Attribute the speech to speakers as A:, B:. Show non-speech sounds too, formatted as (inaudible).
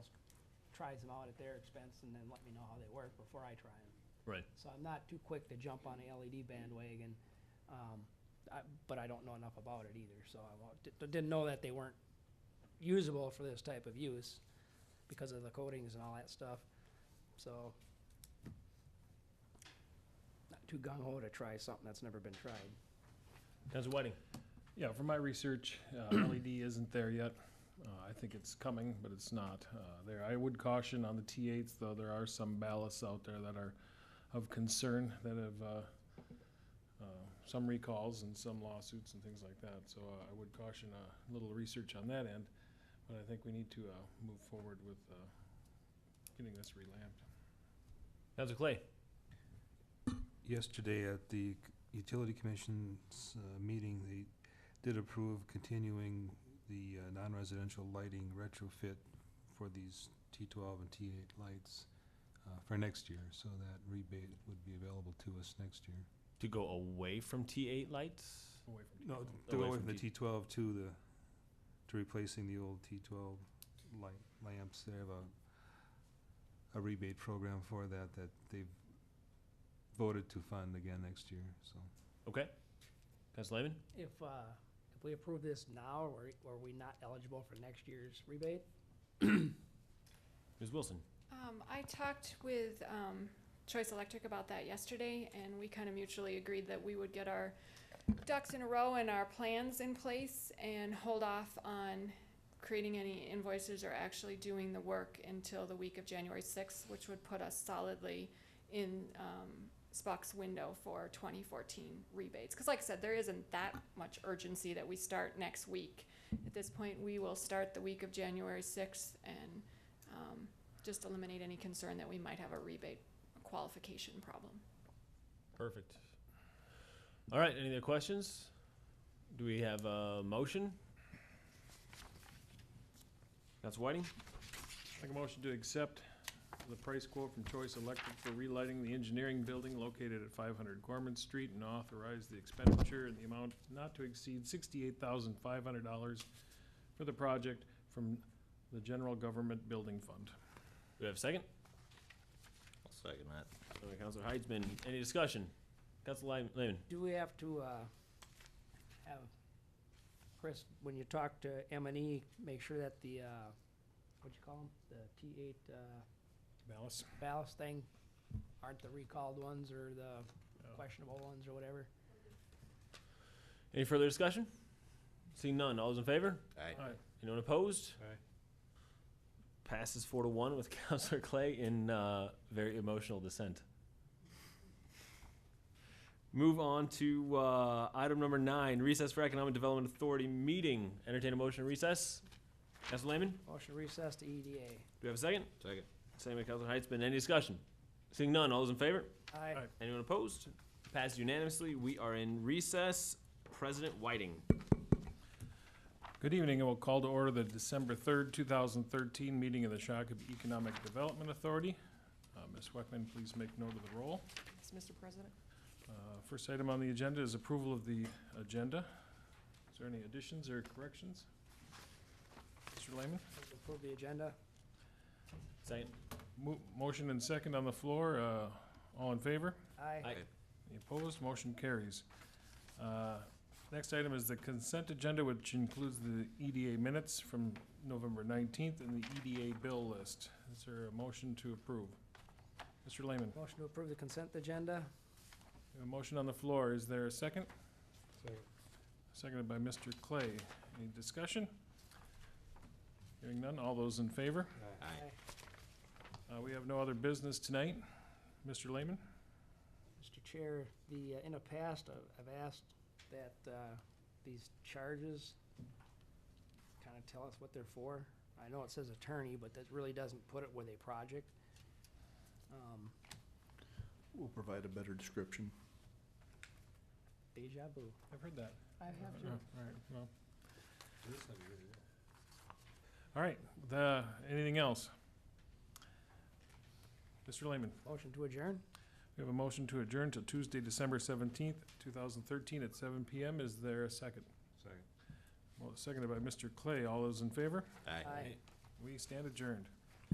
A: tries them out at their expense and then let me know how they work before I try them.
B: Right.
A: So I'm not too quick to jump on a LED bandwagon, um, I, but I don't know enough about it either, so I won't, di- didn't know that they weren't usable for this type of use because of the coatings and all that stuff, so. Not too gung ho to try something that's never been tried.
B: Council Whiting?
C: Yeah, from my research, uh, LED isn't there yet. Uh, I think it's coming, but it's not uh, there. I would caution on the T8s, though, there are some ballasts out there that are of concern that have uh, uh, some recalls and some lawsuits and things like that. So uh, I would caution a little research on that end, but I think we need to uh, move forward with uh, getting this relamped.
B: Council Clay?
D: Yesterday at the Utility Commission's uh, meeting, they did approve continuing the uh, non-residential lighting retrofit for these T12 and T8 lights uh, for next year, so that rebate would be available to us next year.
B: To go away from T8 lights?
C: Away from
D: No,
C: T12.
D: to
B: Away
D: go away
B: from
D: from the
B: T-
D: T12 to the, to replacing the old T12 light lamps. They have a, a rebate program for that, that they've voted to fund again next year, so.
B: Okay. Council Lehman?
A: If, uh, if we approve this now, are, are we not eligible for next year's rebate?
B: Ms. Wilson?
E: Um, I talked with, um, Choice Electric about that yesterday, and we kind of mutually agreed that we would get our ducks in a row and our plans in place and hold off on creating any invoices or actually doing the work until the week of January sixth, which would put us solidly in, um, Spock's window for twenty fourteen rebates. Cause like I said, there isn't that much urgency that we start next week. At this point, we will start the week of January sixth and, um, just eliminate any concern that we might have a rebate qualification problem.
B: Perfect. All right, any other questions? Do we have a motion? Council Whiting?
C: Make a motion to accept the price quote from Choice Electric for relighting the engineering building located at five hundred Gorman Street and authorize the expenditure in the amount not to exceed sixty-eight thousand five hundred dollars for the project from the General Government Building Fund.
B: Do we have a second?
F: I'll second that.
B: All right, Council Heitzman, any discussion? Council Lehman?
A: Do we have to, uh, have, Chris, when you talk to M and E, make sure that the, uh, what'd you call them? The T eight, uh,
C: Ballas?
A: ballast thing aren't the recalled ones or the
C: Oh.
A: questionable ones or whatever?
B: Any further discussion? Seeing none, all those in favor?
F: Aye.
B: Anyone opposed?
C: Aye.
B: Passes four to one with (laughs) Councilor Clay in uh, very emotional dissent. Move on to uh, item number nine, recess for Economic Development Authority meeting. Entertain a motion to recess. Council Lehman, do
A: Motion recess to E EDA.
B: we have a second?
F: Second.
B: Same with Councilor Heitzman. Any discussion? Seeing none, all those in favor?
A: Aye.
C: Aye.
B: Anyone opposed? Passed unanimously. We are in recess. President Whiting.
C: Good evening, and we'll call to order the December 3rd, 2013 meeting of the Shakopee Economic Development Authority. Uh, Ms. Weckman, please make note of the roll.
E: Yes, Mr. President?
C: Uh, First item on the agenda is approval of the agenda. Is there any additions or corrections? Mr. Lehman?
A: Approve the agenda.
B: Second.
C: Mo- Motion and second on the floor. uh, All in favor?
A: Aye.
B: Aye.
C: Any opposed? Motion carries. Uh, Next item is the consent agenda, which includes the EDA minutes from November 19th and the EDA bill list. Is there a motion to approve? Mr. Lehman,
A: Motion to approve the consent agenda.
C: we have a motion on the floor. Is there a second? Seconded by Mr. Clay. Any discussion? Hearing none. All those in favor?
F: Aye.
C: Uh, We have no other business tonight. Mr. Lehman?
A: Mr. Chair, the, uh, in the past, I've I've asked that uh, these charges kind of tell us what they're for. I know it says attorney, but that really doesn't put it with a project. Um,
G: We'll provide a better description.
A: Deja vu.
C: I've heard that.
A: I have
C: All right, well. All right, the, anything else? Mr. Lehman,
A: Motion to adjourn?
C: we have a motion to adjourn to Tuesday, December seventeenth, two thousand thirteen, at seven PM. Is there a second?
D: Second.
C: Well, seconded by Mr. Clay. All those in favor?
F: Aye.
A: Aye.
C: We stand adjourned.